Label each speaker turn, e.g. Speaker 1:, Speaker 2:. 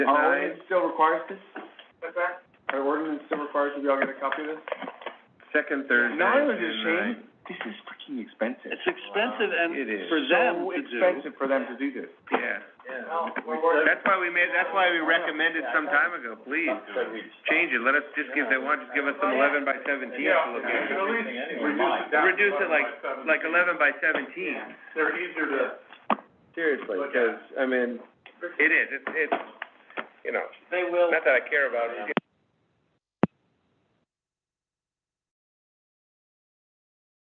Speaker 1: Our
Speaker 2: denied.
Speaker 1: ordinance still requires this? What's that? Our ordinance still requires that we all get a copy of this?
Speaker 2: Second Thursday.
Speaker 1: Not only
Speaker 2: June
Speaker 1: is it shame,
Speaker 2: ninth.
Speaker 1: this is freaking expensive.
Speaker 3: It's expensive and
Speaker 2: It is.
Speaker 3: for them
Speaker 1: So
Speaker 3: to do.
Speaker 1: expensive for them to do this.
Speaker 2: Yeah.
Speaker 1: Yeah.
Speaker 2: That's why we made, that's why we recommended some time ago, please, change it, let us, just give, they want, just give us some eleven by seventeen to look at.
Speaker 1: reduce it
Speaker 2: Reduce it like, like eleven by seventeen.
Speaker 1: They're easier to.
Speaker 2: Seriously, because, I mean. It is, it's, it's, you know,
Speaker 3: They will.
Speaker 2: not that I care about it,